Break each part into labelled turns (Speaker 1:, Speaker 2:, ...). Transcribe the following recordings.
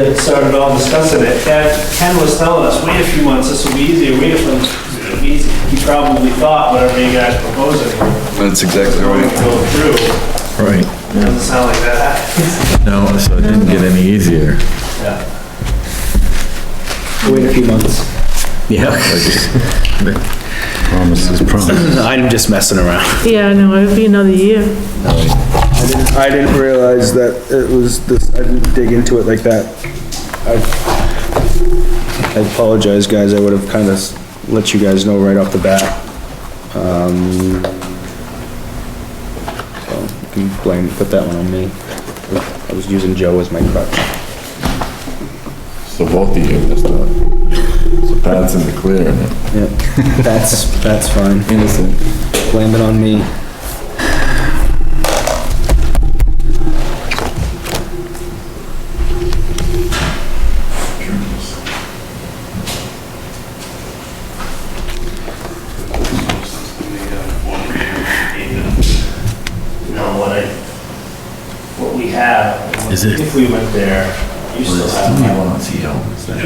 Speaker 1: uh, started all discussing it, Ken, Ken was telling us, wait a few months, this will be easier, wait a few months, this will be easy. He probably thought whatever you guys proposing would
Speaker 2: That's exactly right.
Speaker 1: go through,
Speaker 3: Right,
Speaker 1: doesn't sound like that.
Speaker 3: no, so it didn't get any easier.
Speaker 1: Yeah.
Speaker 4: Wait a few months.
Speaker 5: Yeah.
Speaker 2: Promise is promise.
Speaker 5: I'm just messing around.
Speaker 6: Yeah, no, it'll be another year.
Speaker 4: I didn't, I didn't realize that it was this, I didn't dig into it like that. I I apologize, guys, I would have kind of let you guys know right off the bat. Um, so, you can blame, put that one on me. I was using Joe as my crutch.
Speaker 2: So both of you missed out. So Pat's in the clear and
Speaker 4: Yeah, that's, that's fine.
Speaker 2: innocent.
Speaker 4: Blame it on me.
Speaker 1: You know, what I, what we have,
Speaker 5: Is it-
Speaker 1: if we went there, you still have my one outside. You still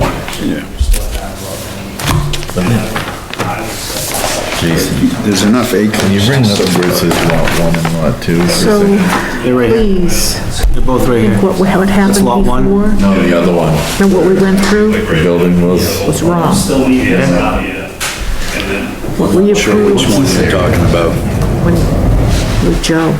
Speaker 1: have what we need. I would say-
Speaker 3: Jason,
Speaker 7: There's enough
Speaker 3: can you
Speaker 7: acres.
Speaker 3: bring up where it says lot one and lot two?
Speaker 6: So, please,
Speaker 4: They're both right
Speaker 6: think what would happen
Speaker 4: lot one?
Speaker 6: before
Speaker 3: No, the other one.
Speaker 6: and what we went through
Speaker 3: The building was,
Speaker 6: was wrong.
Speaker 1: Still need it, yeah.
Speaker 6: What we approved
Speaker 5: You're talking about.
Speaker 6: when, with Joe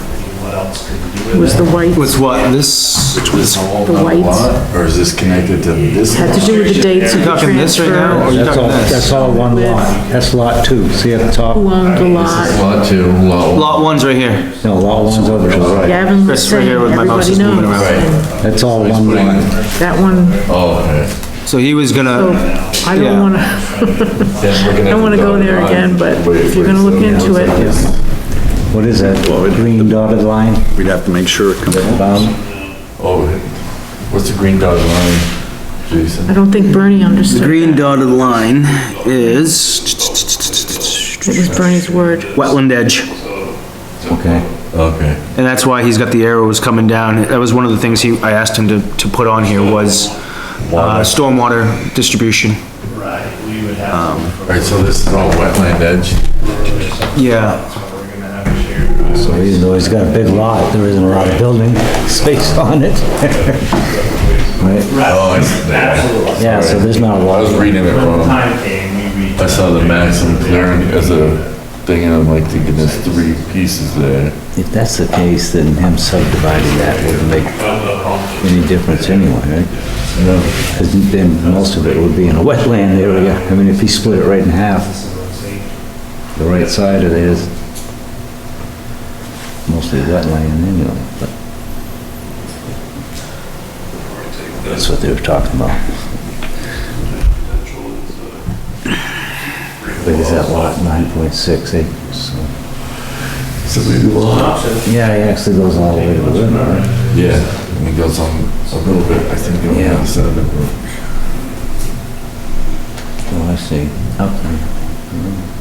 Speaker 1: What else could we do?
Speaker 6: was the whites,
Speaker 4: Was what, this,
Speaker 2: Which was.
Speaker 6: The whites
Speaker 2: Or is this connected to this?
Speaker 6: had to do with the dates of
Speaker 4: you
Speaker 6: the
Speaker 4: talking this right now, or
Speaker 6: transfer.
Speaker 4: you
Speaker 8: That's all,
Speaker 4: talking
Speaker 8: that's
Speaker 4: this?
Speaker 8: all one
Speaker 6: With-
Speaker 8: lot. That's lot two, see at the top?
Speaker 6: Who owned the lot?
Speaker 2: Lot two, lot
Speaker 4: Lot one's right here.
Speaker 8: No, lot one's over there.
Speaker 6: Gavin was
Speaker 4: Chris, right
Speaker 6: saying,
Speaker 4: here with my mouse is
Speaker 6: everybody
Speaker 4: moving
Speaker 6: knows.
Speaker 2: Right.
Speaker 8: That's all one lot.
Speaker 6: That one,
Speaker 2: Oh, okay.
Speaker 4: So he was
Speaker 6: so
Speaker 4: gonna,
Speaker 6: I
Speaker 4: Yeah.
Speaker 6: don't wanna, I don't wanna go there again, but if you're gonna look into it,
Speaker 8: What is that, green dotted line?
Speaker 7: We'd have to make sure it comes.
Speaker 8: Um,
Speaker 2: Oh, what's the green dotted line, Jason?
Speaker 6: I don't think Bernie understood.
Speaker 4: the green dotted line is
Speaker 6: that. It was Bernie's word.
Speaker 4: wetland edge,
Speaker 2: Okay. Okay.
Speaker 4: and that's why he's got the arrows coming down. That was one of the things he, I asked him to, to put on here was, uh, stormwater distribution.
Speaker 1: Right, we would have, to-
Speaker 2: Alright, so this is all wetland edge.
Speaker 4: Yeah.
Speaker 1: that's what we're gonna have to share.
Speaker 8: So even though he's got a big lot, there isn't a lot of building space on it. Right,
Speaker 2: Oh, it's,
Speaker 1: Absolutely.
Speaker 8: yeah, so there's not a
Speaker 2: I was
Speaker 8: lot.
Speaker 2: reading
Speaker 1: When
Speaker 2: it
Speaker 1: the
Speaker 2: wrong.
Speaker 1: time came, we reached.
Speaker 2: I saw the maximum clearing as a thing and I'm like thinking there's three pieces there.
Speaker 8: If that's the case, then him subdividing that wouldn't make any difference anyway, right? Because then most of it would be in a wetland area. I mean, if he split it right in half, the right side of it is mostly wetland anyway, but. That's what they were talking about. Big as that lot, nine point six acres, so. Yeah, it actually goes all the way to the river, right?
Speaker 2: Yeah, and it goes on a little bit, I think, on the
Speaker 8: Yeah.
Speaker 2: other side of the.
Speaker 8: Oh, I see. Up there.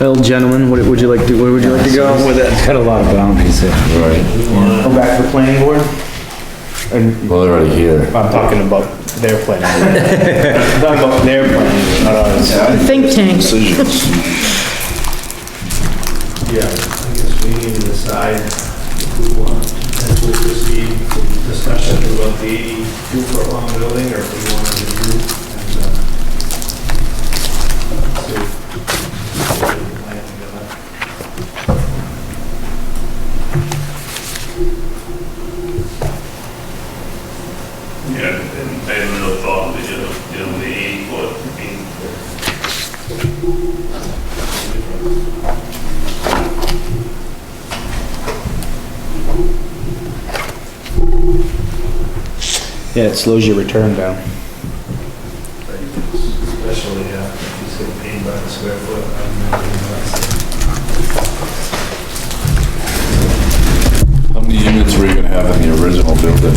Speaker 4: Well, gentlemen, what would you like to, where would you like to go with it?
Speaker 8: It's got a lot of boundaries there.
Speaker 2: Right,
Speaker 4: Go back to the planning board? And
Speaker 2: well, they're already here.
Speaker 4: I'm talking about their planning. I'm talking about their planning, not ours.
Speaker 6: Think tank.
Speaker 1: Yeah, I guess we need to decide if we want to potentially proceed with the discussion about the 82 foot long building or if we want to do. and, uh, see if we can plan together.
Speaker 9: Yeah, and I had another thought, that, you know, you know, the eighty foot, I mean,
Speaker 4: Yeah, it slows your return down.
Speaker 1: Especially, uh, if he's getting paid by the square foot. I don't know, that's-
Speaker 2: How many units were you gonna have in the original building?
Speaker 9: I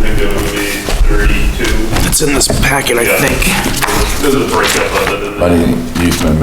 Speaker 9: think it would be thirty-two.
Speaker 4: It's in this packet, I
Speaker 9: Yeah.
Speaker 4: think.
Speaker 9: Doesn't break up other than that.
Speaker 2: I didn't use my